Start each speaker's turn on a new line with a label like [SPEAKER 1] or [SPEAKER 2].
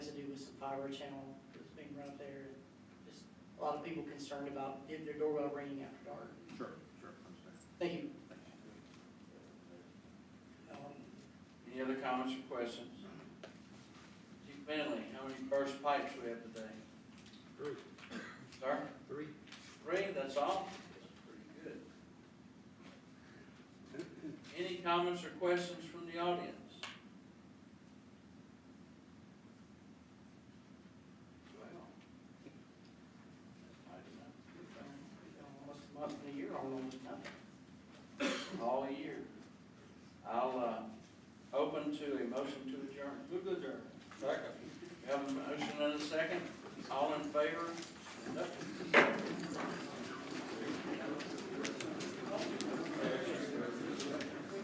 [SPEAKER 1] fiber channel that's being run up there. Just a lot of people concerned about did their doorbell ringing after dark.
[SPEAKER 2] Sure, sure, understand.
[SPEAKER 1] Thank you. Um,
[SPEAKER 3] Any other comments or questions? Chief Bentley, how many burst pipes we have today?
[SPEAKER 4] Three.
[SPEAKER 3] Sir?
[SPEAKER 4] Three.
[SPEAKER 3] Three, that's all? That's pretty good. Any comments or questions from the audience? Well. that's
[SPEAKER 1] Almost
[SPEAKER 3] mighty
[SPEAKER 1] a month and a year, almost nothing.
[SPEAKER 3] nice. All year. I'll, uh, open to a motion to adjourn. Move to adjourn. Second. We have a motion and a second. All in favor? Nope.